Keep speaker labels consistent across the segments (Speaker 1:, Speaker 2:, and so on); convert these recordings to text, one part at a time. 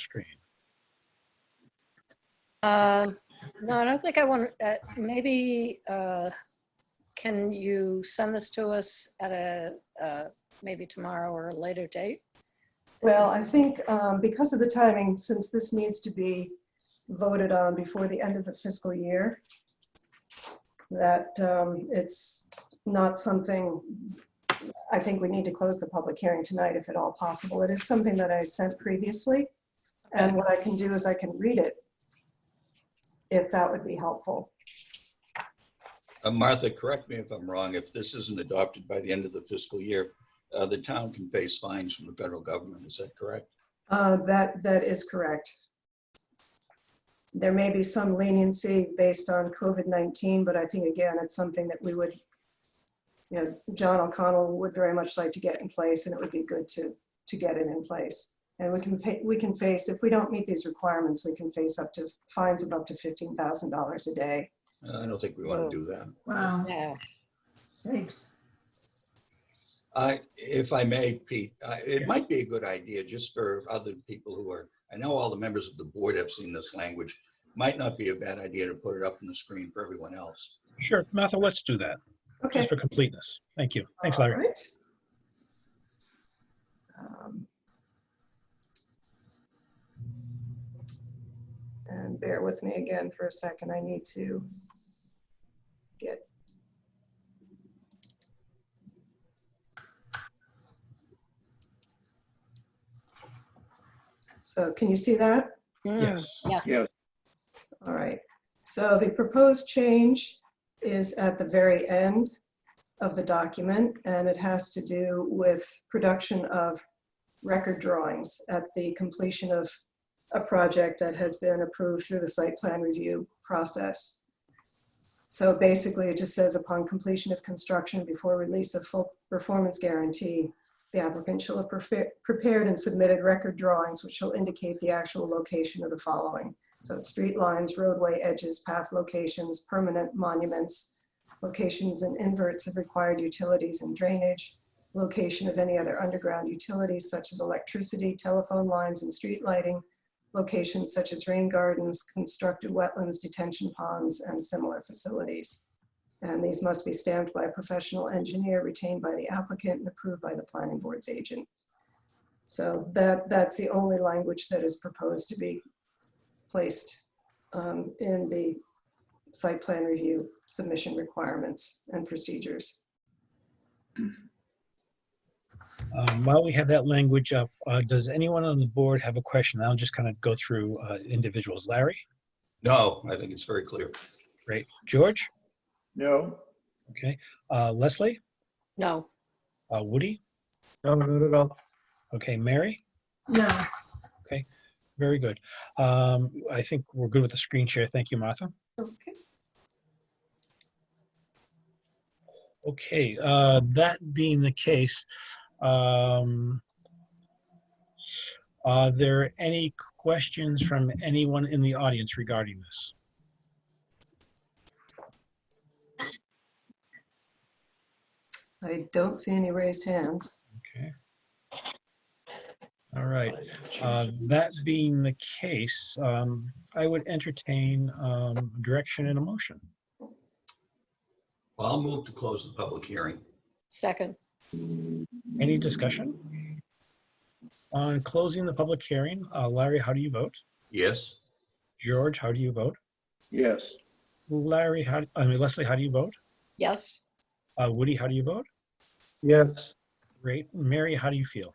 Speaker 1: screen.
Speaker 2: Um, No, I don't think I want, uh, maybe, uh, can you send this to us at a, uh, maybe tomorrow or a later date?
Speaker 3: Well, I think um, because of the timing, since this needs to be voted on before the end of the fiscal year, that um, it's not something, I think we need to close the public hearing tonight if at all possible. It is something that I sent previously. And what I can do is I can read it if that would be helpful.
Speaker 4: Uh, Martha, correct me if I'm wrong, if this isn't adopted by the end of the fiscal year, uh, the town can face fines from the federal government, is that correct?
Speaker 3: Uh, That, that is correct. There may be some leniency based on COVID-19, but I think again, it's something that we would, you know, John O'Connell would very much like to get in place and it would be good to, to get it in place. And we can pay, we can face, if we don't meet these requirements, we can face up to fines of up to $15,000 a day.
Speaker 4: Uh, I don't think we want
Speaker 2: No.
Speaker 4: to do that.
Speaker 5: Wow,
Speaker 2: Yeah,
Speaker 5: thanks.
Speaker 4: I, if I may, Pete, I- it might be a good idea just for other people who are, I know all the members of the board have seen this language. Might not be a bad idea to put it up on the screen for everyone else.
Speaker 1: Sure, Martha, let's do that,
Speaker 3: Okay.
Speaker 1: just for completeness. Thank you. Thanks, Larry.
Speaker 3: All right. Um, And bear with me again for a second. I need to get. So can you see that?
Speaker 2: Mm,
Speaker 1: Yes.
Speaker 2: yeah,
Speaker 3: All right, so the proposed change is at the very end of the document, and it has to do with production of record drawings at the completion of a project that has been approved through the site plan review process. So basically, it just says upon completion of construction before release of full performance guarantee, the applicant shall have prefe- prepared and submitted record drawings which shall indicate the actual location of the following. So it's street lines, roadway edges, path locations, permanent monuments, locations and inverts of required utilities and drainage, location of any other underground utilities such as electricity, telephone lines, and street lighting, locations such as rain gardens, constructed wetlands, detention ponds, and similar facilities. And these must be stamped by a professional engineer retained by the applicant and approved by the planning board's agent. So that, that's the only language that is proposed to be placed um, in the site plan review submission requirements and procedures.
Speaker 1: Um, While we have that language up, uh, does anyone on the board have a question? I'll just kind of go through uh, individuals. Larry,
Speaker 4: No, I think it's very clear.
Speaker 1: great. George,
Speaker 6: No.
Speaker 1: okay. Uh, Leslie,
Speaker 2: no,
Speaker 1: Uh, Woody,
Speaker 6: No, not at all.
Speaker 1: okay. Mary,
Speaker 5: No,
Speaker 1: very good. Um, I think we're good with the screen share. Thank you, Martha.
Speaker 3: Okay.
Speaker 1: Okay, uh, that being the case, um, are there any questions from anyone in the audience regarding this?
Speaker 3: I don't see any raised hands.
Speaker 1: Okay. All right, uh, that being the case, um, I would entertain um, direction and a motion.
Speaker 4: Well, I'll move to close the public hearing.
Speaker 2: second,
Speaker 1: Any discussion? On closing the public hearing, uh, Larry, how do you vote?
Speaker 4: Yes?
Speaker 1: George, how do you vote?
Speaker 6: Yes.
Speaker 1: Larry, how, I mean Leslie, how do you vote?
Speaker 2: yes,
Speaker 1: Uh, Woody, how do you vote?
Speaker 6: Yes.
Speaker 1: Great. Mary, how do you feel?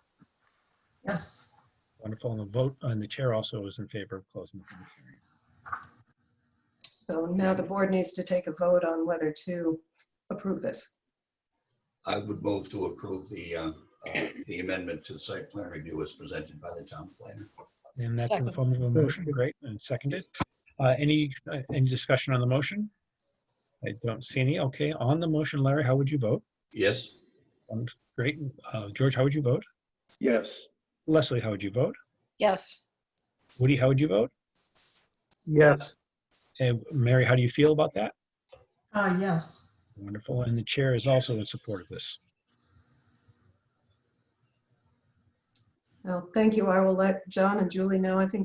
Speaker 5: yes,
Speaker 1: Wonderful. And the vote, and the chair also is in favor of closing the public hearing.
Speaker 3: So now the board needs to take a vote on whether to approve this.
Speaker 4: I would move to approve the, uh, uh, the amendment to the site plan review as presented by the town planner.
Speaker 1: And that's in the
Speaker 2: Second.
Speaker 1: form of a motion. Great. And seconded. Uh, any, uh, any discussion on the motion? I don't see any. Okay. On the motion, Larry, how would you vote?
Speaker 4: Yes?
Speaker 1: Great. Uh, George, how would you vote?
Speaker 6: Yes.
Speaker 1: Leslie, how would you vote?
Speaker 2: yes,
Speaker 1: Woody, how would you vote?
Speaker 6: Yes.
Speaker 1: And Mary, how do you feel about that?
Speaker 5: uh, yes,
Speaker 1: Wonderful. And the chair is also in support of this.
Speaker 3: Well, thank you. I will let John and Julie know. I think